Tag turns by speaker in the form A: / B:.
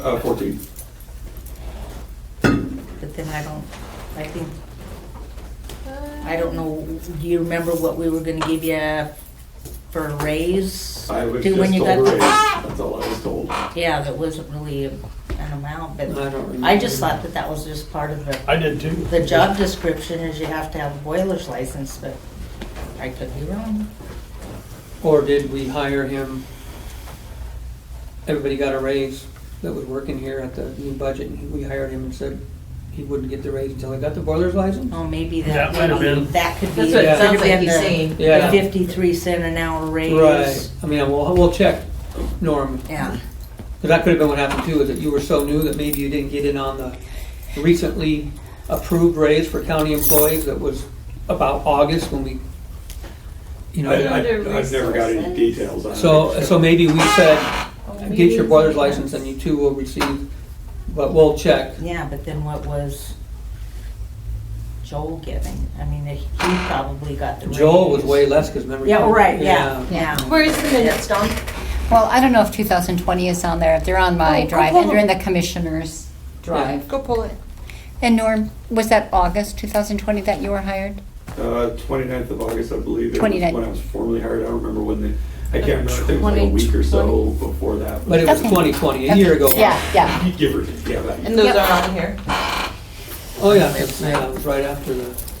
A: Uh, fourteen.
B: But then I don't, I think, I don't know, do you remember what we were gonna give you for a raise?
A: I was
B: Do
A: just
B: when you
A: told
B: got
A: a
B: the-
A: raise. That's all I was told.
B: Yeah, that wasn't really an amount, but
C: I don't remember.
B: I just thought that that was just part of the,
D: I did too.
B: the job description is you have to have a boiler's license, but I could be wrong.
C: Or did we hire him? Everybody got a raise that was working here at the new budget, and we hired him and said he wouldn't get the raise until he got the boiler's license?
B: Oh, maybe that,
D: That might have been.
B: that could be
E: That's what it
C: Yeah.
E: sounds like
B: something,
E: he's
B: the
E: saying.
B: the
C: Yeah.
B: fifty-three cent an hour
C: Right,
B: raise.
C: I mean, we'll, we'll check, Norm,
B: Yeah,
C: But that could have been what happened too, is that you were so new that maybe you didn't get in on the recently approved raise for county employees that was about August when we, you
A: I,
C: know.
A: I,
E: Other
A: I've never got any
E: resources.
A: details on it.
C: So, so maybe we said, get your brother's
E: brother's
C: license and you too will receive, but we'll check.
B: yeah, but then what was Joel giving? I mean, he probably got the raise.
C: Joel was way less because remember.
B: Yeah, right, yeah, yeah.
E: Where is the minutes, Don?
F: Well, I don't know if 2020 is on there. They're on
E: Oh,
F: my
E: go
F: drive,
E: pull
F: and they're in
E: them.
F: the commissioner's drive.
E: Go pull it.
F: And Norm, was that August 2020 that you were hired?
A: Uh, 29th of August, I believe, it was
F: 29th.
A: when I was formally hired. I don't remember when the, I can't remember. I think it was like a week or so before that.
C: But it was
F: Okay.
C: twenty twenty, a year ago.
F: Yeah, yeah.
A: Give or take, yeah. that-
E: And those
F: Yep.
E: are on here.
C: Oh, yeah, it's- yeah, it was right after the,